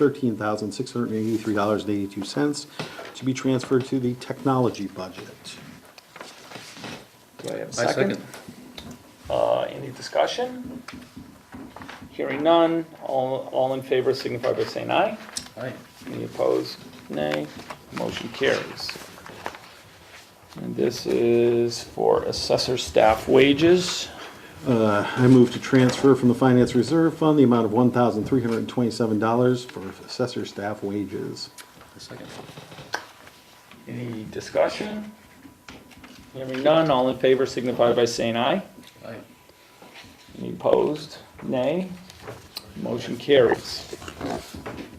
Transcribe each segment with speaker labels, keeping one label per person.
Speaker 1: thirteen thousand six hundred and eighty-three dollars and eighty-two cents to be transferred to the technology budget.
Speaker 2: Do I have a
Speaker 3: I
Speaker 2: second? Uh, any discussion? Hearing none, all, all in favor signify by saying aye.
Speaker 3: Aye.
Speaker 2: Any opposed? Nay. Motion carries. And this is for assessor staff wages.
Speaker 1: Uh, I move to transfer from the Finance Reserve Fund the amount of one thousand three hundred and twenty-seven dollars for assessor staff wages.
Speaker 3: I second.
Speaker 2: Any discussion? Hearing none, all in favor signify by saying aye.
Speaker 3: Aye.
Speaker 2: Any opposed? Nay. Motion carries.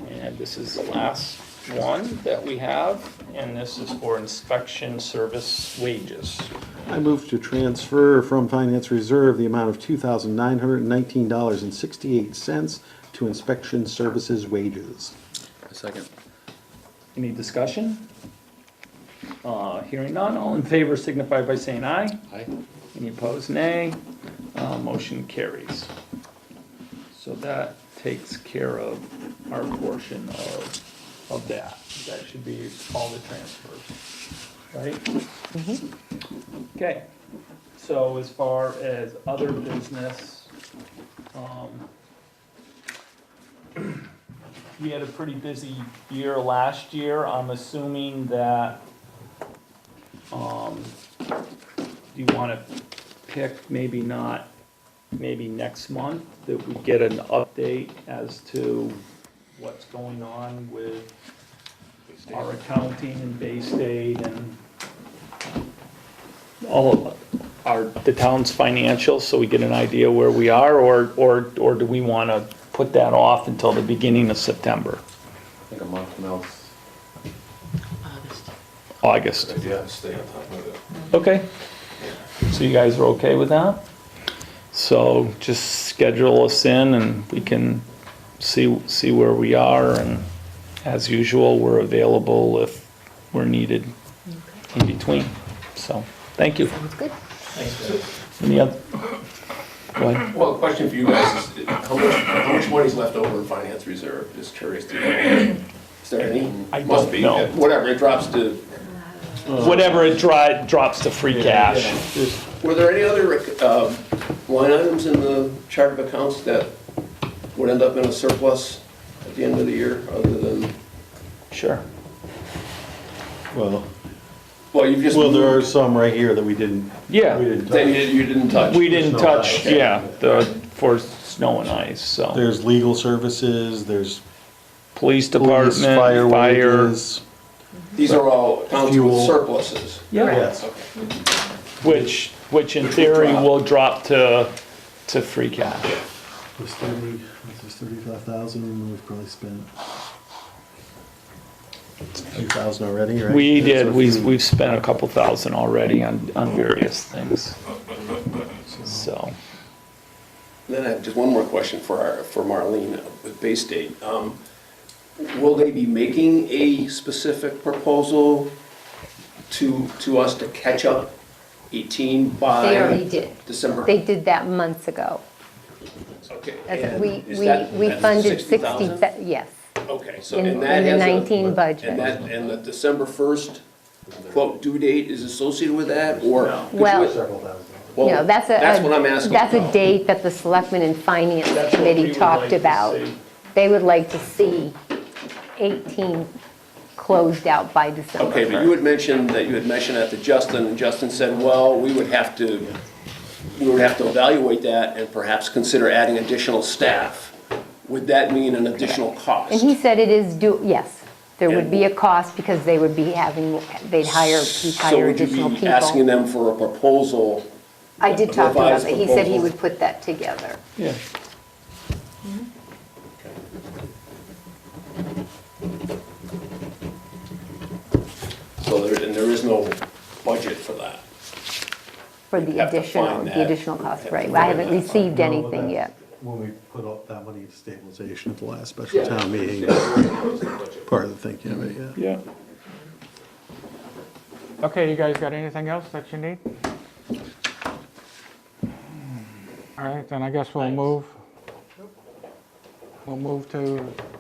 Speaker 2: And this is the last one that we have, and this is for inspection service wages.
Speaker 1: I move to transfer from Finance Reserve the amount of two thousand nine hundred and nineteen dollars and sixty-eight cents to inspection services wages.
Speaker 3: I second.
Speaker 2: Any discussion? Uh, Hearing none, all in favor signify by saying aye.
Speaker 3: Aye.
Speaker 2: Any opposed, nay. Uh, Motion carries. So that takes care of our portion of, of that. That should be all the transfers, right? Okay, so as far as other business, um, we had a pretty busy year last year. I'm assuming that, um, do you want to pick, maybe not, maybe next month, that we get an update as to what's going on with our accounting and Bay State and all of our, the town's financials, so we get an idea where we are, or, or, or do we want to put that off until the beginning of September,
Speaker 4: I think a month from now is
Speaker 5: August.
Speaker 4: a
Speaker 2: August?
Speaker 4: good idea, stay on top of it.
Speaker 2: Okay. So you guys are okay with that? So just schedule us in and we can see, see where we are and as usual, we're available if we're needed in between. So, thank you.
Speaker 5: Sounds good.
Speaker 2: Any other? Go ahead.
Speaker 4: Well, a question for you guys is, how much, how much money's left over in finance reserve? Just curious to know. Is there any?
Speaker 2: I don't
Speaker 4: Must be.
Speaker 2: know.
Speaker 4: Whatever, it drops to,
Speaker 2: Whatever it dri, drops to free cash.
Speaker 4: were there any other, um, line items in the chart of accounts that would end up in a surplus at the end of the year, other than,
Speaker 2: Sure.
Speaker 1: Well,
Speaker 4: well, you've just.
Speaker 1: well, there are some right here that we didn't.
Speaker 2: Yeah.
Speaker 1: we didn't
Speaker 4: That
Speaker 1: touch.
Speaker 4: you didn't, you didn't touch?
Speaker 2: We didn't
Speaker 1: Snow
Speaker 2: touch,
Speaker 4: and ice.
Speaker 2: yeah, the, for snow and ice, so.
Speaker 1: There's legal services, there's police,
Speaker 2: Police department,
Speaker 1: fire
Speaker 2: fire.
Speaker 1: wages.
Speaker 4: These are all accounts with
Speaker 1: Fuel.
Speaker 4: surpluses.
Speaker 2: Yeah.
Speaker 1: Yes.
Speaker 4: Okay.
Speaker 2: Which, which in
Speaker 4: Which will
Speaker 2: theory
Speaker 4: drop.
Speaker 2: will drop to, to free cash.
Speaker 1: There's thirty, there's thirty-five thousand, we've probably spent two thousand already, right?
Speaker 2: We
Speaker 1: There's
Speaker 2: did,
Speaker 1: a
Speaker 2: we,
Speaker 1: few.
Speaker 2: we've spent a couple thousand already on, on various things. So,
Speaker 4: Then I have just one more question for our, for Marlene with Bay State. Um, Will they be making a specific proposal to, to us to catch up 18 by?
Speaker 5: They already did.
Speaker 4: December?
Speaker 5: They did that months ago.
Speaker 4: Okay.
Speaker 5: That's-
Speaker 4: and
Speaker 5: We,
Speaker 4: is
Speaker 5: we,
Speaker 4: that-
Speaker 5: we
Speaker 4: that's
Speaker 5: funded 60,
Speaker 4: 60,000?
Speaker 5: thou- yes,
Speaker 4: Okay, so
Speaker 5: in
Speaker 4: and
Speaker 5: in
Speaker 4: that
Speaker 5: the
Speaker 4: has a-
Speaker 5: 19
Speaker 4: And
Speaker 5: budget.
Speaker 4: that, and the December 1st quote due date is associated with that or?
Speaker 5: Well,
Speaker 4: Well,
Speaker 5: no, that's a.
Speaker 4: That's what I'm asking.
Speaker 5: That's a
Speaker 4: about.
Speaker 5: date that the Selectmen and Finance
Speaker 2: That's what we
Speaker 5: Committee
Speaker 2: would like
Speaker 5: talked
Speaker 2: to
Speaker 5: about.
Speaker 2: see.
Speaker 5: They would like to see 18 closed out by December.
Speaker 4: Okay, but you had mentioned that you had mentioned that to Justin, and Justin said, well, we would have to, we would have to evaluate that and perhaps consider adding additional staff. Would that mean an additional
Speaker 5: And
Speaker 4: cost?
Speaker 5: he said it is due, yes, there would
Speaker 4: And-
Speaker 5: be a cost because they would be having, they'd hire, he'd
Speaker 4: So
Speaker 5: hire
Speaker 4: would
Speaker 5: additional
Speaker 4: you be
Speaker 5: people.
Speaker 4: asking them for a proposal?
Speaker 5: I did talk to him about
Speaker 4: revised
Speaker 5: that. He said he
Speaker 4: proposal?
Speaker 5: would put that together.
Speaker 2: yeah.
Speaker 4: So there, and there is no budget for that.
Speaker 5: For
Speaker 4: You'd
Speaker 5: the
Speaker 4: have to
Speaker 5: additional,
Speaker 4: find
Speaker 5: the
Speaker 4: that.
Speaker 5: additional cost,
Speaker 4: Have to
Speaker 5: right, I
Speaker 4: find
Speaker 5: haven't
Speaker 4: that.
Speaker 5: received
Speaker 1: No,
Speaker 5: anything
Speaker 1: that's
Speaker 5: yet.
Speaker 1: When we put all that money into stabilization at the last special town meeting, part of the thinking of it, yeah.
Speaker 2: Yeah.
Speaker 6: Okay, you guys got anything else that you need? All right, then I guess we'll move. We'll move to